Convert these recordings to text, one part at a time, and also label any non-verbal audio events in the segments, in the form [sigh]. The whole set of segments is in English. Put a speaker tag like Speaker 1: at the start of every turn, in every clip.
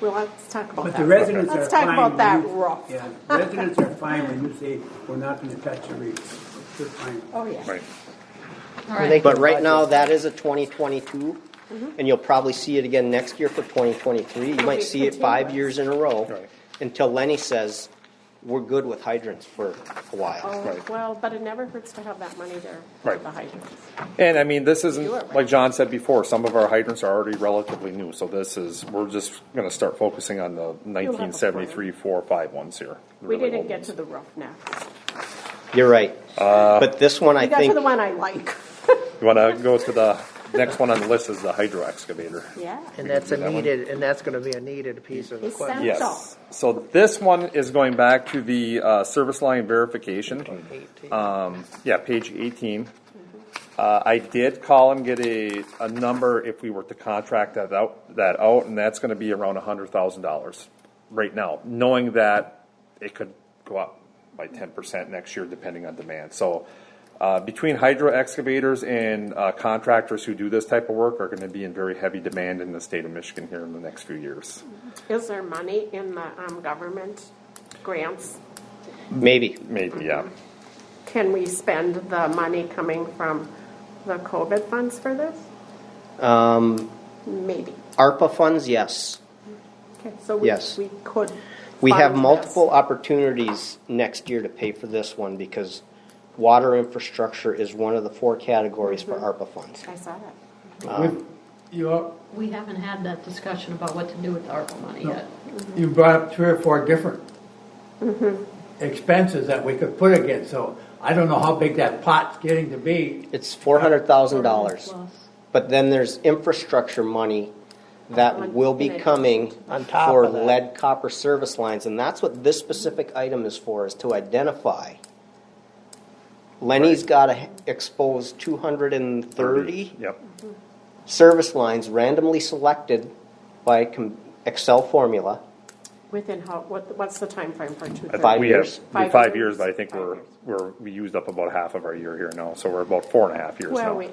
Speaker 1: Well, let's talk about
Speaker 2: But
Speaker 1: that.
Speaker 2: the residents are fine.
Speaker 1: Let's talk about that
Speaker 2: when you-
Speaker 1: rough.
Speaker 2: Yeah, residents are fine when you say, we're not gonna touch the reefs. They're fine.
Speaker 1: Oh, yeah.
Speaker 3: Right.
Speaker 4: All
Speaker 5: They
Speaker 4: right,
Speaker 5: can
Speaker 3: But right now,
Speaker 5: budget.
Speaker 3: that is a 2022, and you'll probably see it again next year for 2023. You might
Speaker 1: be
Speaker 3: see it five
Speaker 1: continuous.
Speaker 3: years in a row
Speaker 6: Right.
Speaker 3: until Lenny says, we're good with hydrants for a while.
Speaker 1: Oh,
Speaker 6: Right.
Speaker 1: well, but it never hurts to have that money there for
Speaker 6: Right.
Speaker 1: the hydrants.
Speaker 6: And I mean, this
Speaker 1: Do it right.
Speaker 6: isn't, like John said before, some of our hydrants are already relatively new, so this is, we're just gonna start focusing on the nineteen seventy-three, four, five ones here. the
Speaker 1: We
Speaker 6: really
Speaker 1: didn't
Speaker 6: old
Speaker 1: get
Speaker 6: ones.
Speaker 1: to the roof next.
Speaker 3: You're right. But this one, I
Speaker 1: We got to
Speaker 3: think,
Speaker 1: the one I like.
Speaker 6: You wanna go to the, next one on the list is the
Speaker 1: [laughs]
Speaker 6: hydro excavator.
Speaker 1: Yeah.
Speaker 5: And that's a
Speaker 6: That one?
Speaker 5: needed, and that's gonna be a needed piece of
Speaker 1: Is
Speaker 5: equipment.
Speaker 1: that-
Speaker 6: Yes, so this one is going back to the, uh, service line verification. Um, yeah, page eighteen. Uh, I did call and get a, a number if we were to contract that out, that out, and that's gonna be around a hundred thousand dollars right now, knowing that it could go up by ten percent next year depending on demand, so. Uh, between hydro excavators and, uh, contractors who do this type of work are gonna be in very heavy demand in the state of Michigan here in the next few years.
Speaker 1: Is there money in the um, government grants?
Speaker 3: maybe.
Speaker 6: Maybe, yeah.
Speaker 1: Can we spend the money coming from the COVID funds for this? Um. Maybe.
Speaker 3: ARPA funds, yes.
Speaker 1: Okay, so we,
Speaker 3: Yes.
Speaker 1: we could.
Speaker 3: We have
Speaker 1: fund this.
Speaker 3: multiple opportunities next year to pay for this one because water infrastructure is one of the four categories for ARPA funds.
Speaker 1: I saw that.
Speaker 7: With- You, all-
Speaker 4: we haven't had that discussion about what to do with the ARPA money yet.
Speaker 7: you brought up three or four different
Speaker 1: Mm-hmm.
Speaker 7: expenses that we could put against, so I don't know how big that pot's getting to be.
Speaker 3: It's four hundred thousand dollars.
Speaker 4: Plus.
Speaker 3: But then there's infrastructure money that will be coming
Speaker 5: On top
Speaker 3: for
Speaker 5: of that.
Speaker 3: lead copper service lines, and that's what this specific item is for, is to identify. Lenny's gotta expose two hundred and thirty
Speaker 6: Yep.
Speaker 3: service lines randomly selected by com- Excel formula.
Speaker 1: Within how, what, what's the timeframe for two
Speaker 6: I think
Speaker 1: thirty?
Speaker 6: we have-
Speaker 3: years?
Speaker 6: we have
Speaker 1: Five
Speaker 6: Five
Speaker 1: years?
Speaker 6: years, but I think
Speaker 1: Five
Speaker 6: we're,
Speaker 1: years.
Speaker 6: we're, we used up about half of our year here now, so we're about four and a half years
Speaker 1: Well,
Speaker 6: now.
Speaker 1: wait.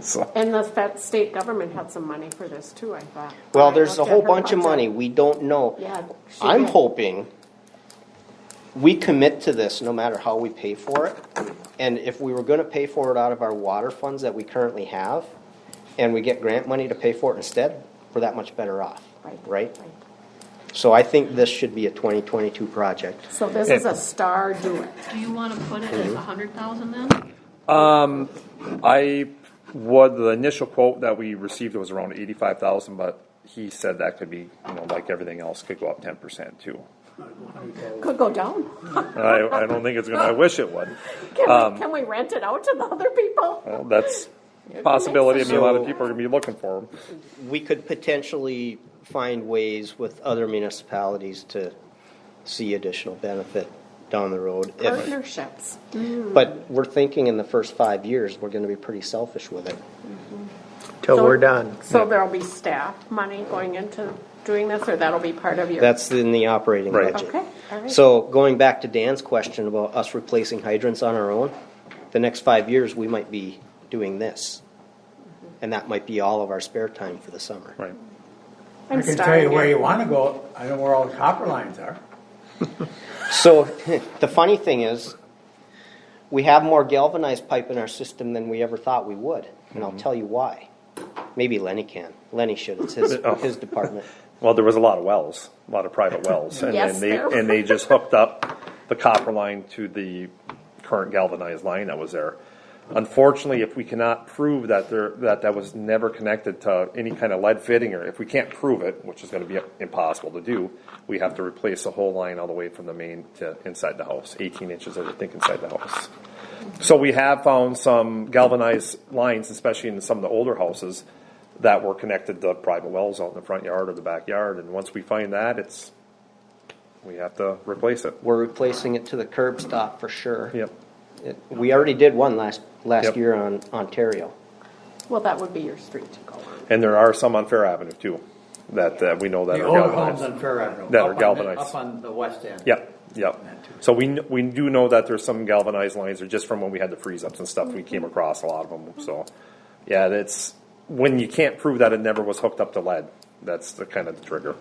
Speaker 6: So,
Speaker 1: [laughs] And the fed, state government had some money for this too, I thought.
Speaker 3: Well,
Speaker 1: I
Speaker 3: there's a
Speaker 1: looked at
Speaker 3: whole
Speaker 1: her
Speaker 3: bunch of
Speaker 1: budget.
Speaker 3: money, we don't know.
Speaker 1: Yeah, she
Speaker 3: I'm
Speaker 1: did.
Speaker 3: hoping we commit to this no matter how we pay for it. And if we were gonna pay for it out of our water funds that we currently have, and we get grant money to pay for it instead, we're that much better off,
Speaker 1: Right.
Speaker 3: right? So I think this should be a twenty twenty-two project.
Speaker 1: So this is a star do it.
Speaker 4: Do you want to put it as a hundred thousand then?
Speaker 6: I, what, the initial quote that we received was around eighty-five thousand, but he said that could be, you know, like everything else, could go up ten percent too.
Speaker 1: Could go down.
Speaker 6: And I, I don't think it's gonna, I wish it would.
Speaker 1: Can
Speaker 7: Um,
Speaker 1: we, can we rent it out to the other people?
Speaker 6: Well, that's a possibility, I mean, a lot of people are gonna be looking for them.
Speaker 3: We could potentially find ways with other municipalities to see additional benefit down the road. if-
Speaker 1: Partnerships.
Speaker 3: But we're thinking in the first five years, we're gonna be pretty selfish with it.
Speaker 5: Till
Speaker 1: So-
Speaker 5: we're done.
Speaker 1: So there'll be staff money going into doing this, or that'll be part of your?
Speaker 3: That's in the operating
Speaker 6: Right.
Speaker 3: budget.
Speaker 1: Okay, all right.
Speaker 3: So going back to Dan's question about us replacing hydrants on our own, the next five years, we might be doing this. And that might be all of our spare time for the summer.
Speaker 6: Right.
Speaker 1: I'm
Speaker 7: I can tell you
Speaker 1: starring
Speaker 7: where
Speaker 1: it.
Speaker 7: you wanna go, I know where all the copper lines are.
Speaker 3: So [laughs] the funny thing is, we have more galvanized pipe in our system than we ever thought we would. And
Speaker 6: Mm-hmm.
Speaker 3: I'll tell you why. Maybe Lenny can. Lenny should. It's
Speaker 6: [laughs]
Speaker 3: his,
Speaker 6: Oh.
Speaker 3: his department.
Speaker 6: Well, there was a lot of wells, a lot
Speaker 1: [laughs]
Speaker 6: of private wells, and
Speaker 1: Yes,
Speaker 6: then they,
Speaker 1: there
Speaker 6: and they just hooked up the copper line to the current galvanized line that was there. Unfortunately, if we cannot prove that there, that that was never connected to any kind of lead fitting, or if we can't prove it, which is gonna be impossible to do, we have to replace the whole line all the way from the main to inside the house, eighteen inches, I think, inside the house. So we have found some galvanized lines, especially in some of the older houses, that were connected to private wells out in the front yard or the backyard. And once we find that, it's, we have to replace it.
Speaker 3: We're replacing it to the curb stop for sure.
Speaker 6: Yep.
Speaker 3: It- We already did one last, last
Speaker 6: Yep.
Speaker 3: year on Ontario.
Speaker 1: Well, that would be your street to go on.
Speaker 6: And there are some on Fair Avenue too, that, that we know that
Speaker 7: The
Speaker 6: are
Speaker 7: older homes
Speaker 6: galvanized.
Speaker 7: on Fair Avenue.
Speaker 6: That are
Speaker 7: up on the-
Speaker 6: galvanized.
Speaker 7: Up on the west end.
Speaker 6: Yep, yep. So we, kn- we do know that there's some galvanized lines, or just from when we had the freeze ups and stuff, we
Speaker 7: Mm-hmm.
Speaker 6: came across a lot of them, so. Yeah, that's, when you can't prove that it never was hooked up to lead, that's the kind of the trigger.